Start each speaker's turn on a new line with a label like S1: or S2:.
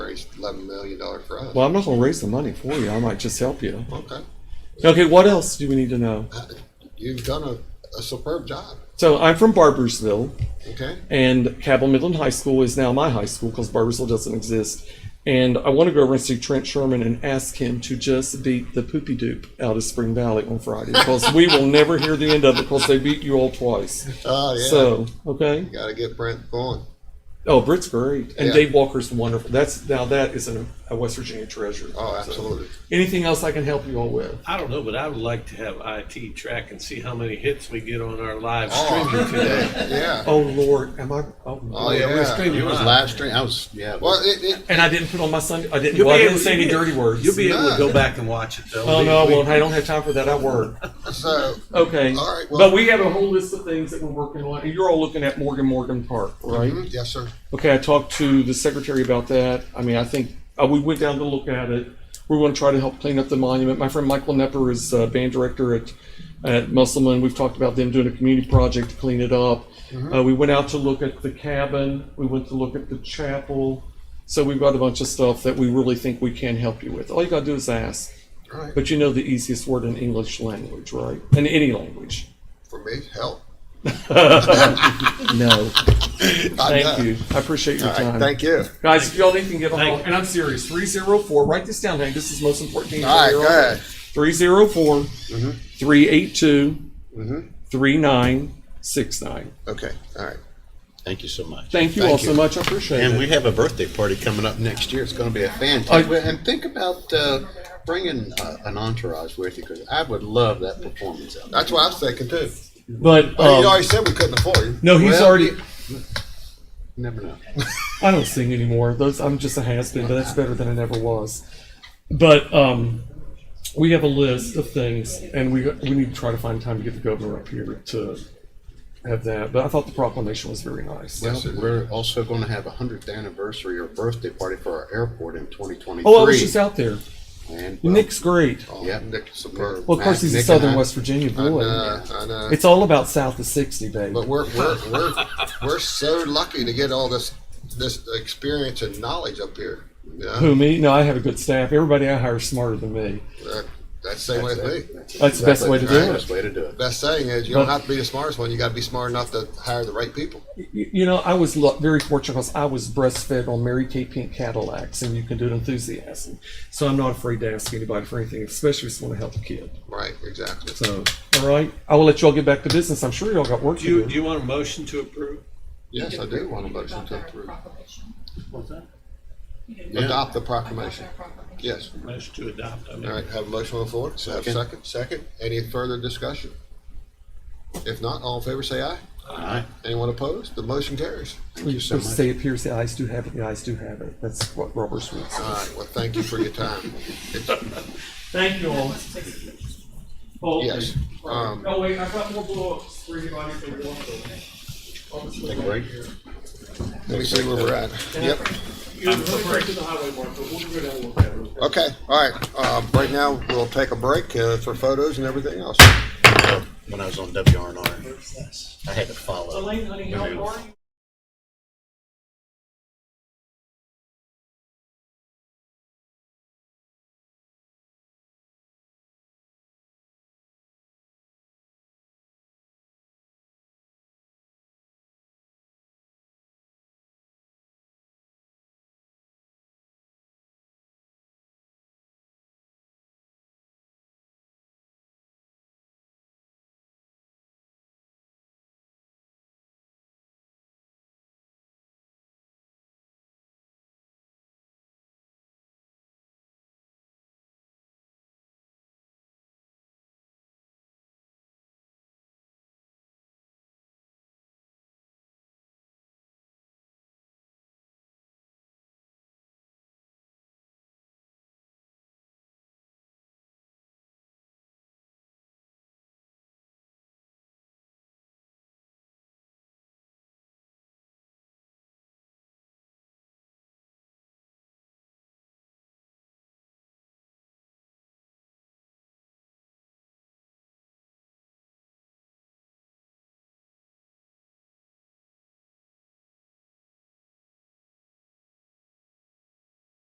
S1: eleven million dollar fraud.
S2: Well, I'm not going to raise the money for you. I might just help you.
S1: Okay, Uh,
S2: Okay, what else do we need to know?
S1: you've done a, a superb job.
S2: So I'm from Barbersville,
S1: Okay,
S2: and Cabell Midland High School is now my high school because Barbersville doesn't exist. And I want to go over and see Trent Sherman and ask him to just beat the poopy doop out of Spring Valley on Friday because we will never hear the end of it because they beat you all twice.
S1: oh yeah,
S2: Uh, So, okay.
S1: you got to get Brent going.
S2: Oh, Britt's great. And
S1: Yeah.
S2: Dave Walker's wonderful. That's Now, that is a, a West Virginia treasure.
S1: Oh,
S2: So,
S1: absolutely.
S2: anything else I can help you all with?
S3: I don't know, but I would like to have IT track and see how many hits we get on our live
S1: Oh,
S3: streaming today.
S1: yeah.
S2: Oh, Lord. Am I? Oh,
S1: Oh
S2: Lord.
S1: yeah,
S4: we're streaming. It was
S3: live.
S4: live stream. I was yeah.
S1: Well, it, it,
S2: And I didn't put on my Sunday. I didn't,
S3: You'll
S2: well, I
S3: be
S2: didn't
S3: able-
S2: say any
S3: you'll-
S2: dirty words.
S3: You'll be able to go back and watch it though.
S2: Oh
S3: We-
S2: no, I
S3: we-
S2: won't. I don't have time for that. I work.
S1: so
S2: Okay.
S1: All right, well-
S2: but we have a whole list of things that we're working on, and you're all looking at Morgan Morgan Park,
S3: Mm-hmm.
S2: right?
S1: mhm, yes, sir.
S2: Okay. I talked to the secretary about that. I mean, I think uh, we went down to look at it. We want to try to help clean up the monument. My friend Michael Nepper is uh, band director at at Musselman. We've talked about them doing a community project to clean it up. Uh, we went out to look at the cabin. We went to look at the chapel. So we've got a bunch of stuff that we really think we can help you with. All you gotta do is ask.
S1: All right,
S2: But you know the easiest word in English language, right? In any language.
S1: for me, help.
S2: No.
S1: I
S2: Thank
S1: know.
S2: you. I appreciate your time.
S1: Thank you.
S2: Guys, if y'all need to give a
S3: Thank
S2: call,
S3: you.
S2: and I'm serious, 304, write this down, Hank. This is the most important thing.
S1: All right, go ahead. Mm-hmm.
S2: 304 382
S1: Mhm.
S2: 3969.
S1: Okay, all right.
S4: Thank you so much.
S2: Thank you
S1: Thank
S2: all
S1: you.
S2: so much. I appreciate
S4: And
S2: it.
S4: we have a birthday party coming up next year. It's going to be a
S2: I-
S4: fantastic. well, and think about uh, bringing uh, an entourage with you because I would love that performance. Out there.
S1: That's what I was thinking too.
S2: But,
S1: Well,
S2: um,
S1: you already said we couldn't afford you.
S2: no, he's
S4: Well,
S2: already.
S4: You never know.
S2: I don't sing anymore. Those I'm just a has been, but that's better than I never was. But um, we have a list of things, and we we need to try to find time to get the governor up here to have that. But I thought the proclamation was very nice.
S4: Well, we're also going to have a hundredth anniversary or birthday party for our airport in 2023.
S2: oh, I was just out there.
S4: And, well,
S2: Nick's great.
S1: Oh,
S4: Yep.
S1: Nick, superb.
S2: Well, of course, he's a
S4: Nick and
S2: Southern
S4: I- uh,
S2: West Virginia
S1: I
S2: boy.
S1: know, I know.
S2: It's all about south of sixty, baby.
S1: uh, But we're we're we're we're so lucky to get all this this experience and knowledge up here. You know?
S2: Who me? No, I have a good staff. Everybody I hire is smarter than me.
S1: That, that's the same way
S4: That's
S1: with me.
S4: it.
S2: That's the best way to do
S4: That's the
S2: it.
S4: Best way to do it.
S1: Best saying is you don't
S2: But-
S1: have to be the smartest one. You got to be smart enough to hire the right people.
S2: You, you know, I was lu- very fortunate because I was breastfed on Mary Kay Pink Cadillacs, and you can do it enthusiasm. So I'm not afraid to ask anybody for anything, especially if you want to help a kid.
S1: Right, exactly.
S2: So, all right, I will let you all get back to business. I'm sure you all got work
S3: Do
S2: to
S3: you,
S2: do.
S3: do you want a motion to approve?
S1: Yes, I do want a motion to approve.
S3: What's that?
S4: Yeah.
S1: Adopt the proclamation.
S5: Yeah.
S1: Yes.
S3: Motion to adopt, I mean.
S1: All right. Have a motion on the floor. So have a second. Second. Any further discussion? If not, all in favor, say aye.
S4: All right.
S1: Anyone opposed? The motion carries.
S4: Thank you so
S2: Let's
S4: much.
S2: say it appears the eyes do have it. The eyes do have it. That's what Robert Sweet said.
S4: Uh,
S1: All right. Well, thank you for your time.
S2: Thank you all.
S1: Yes. Um,
S2: oh wait, I've got more blow-ups for anybody if they want
S4: Take a break.
S1: Let me see where we're at. Yep.
S2: You're going to the highway mark, but we'll go down and look at it.
S1: Okay, all right. Uh, right now, we'll take a break uh, for photos and everything else.
S4: When I was on WRNR, I had to follow.
S2: Elaine, honey, how are you?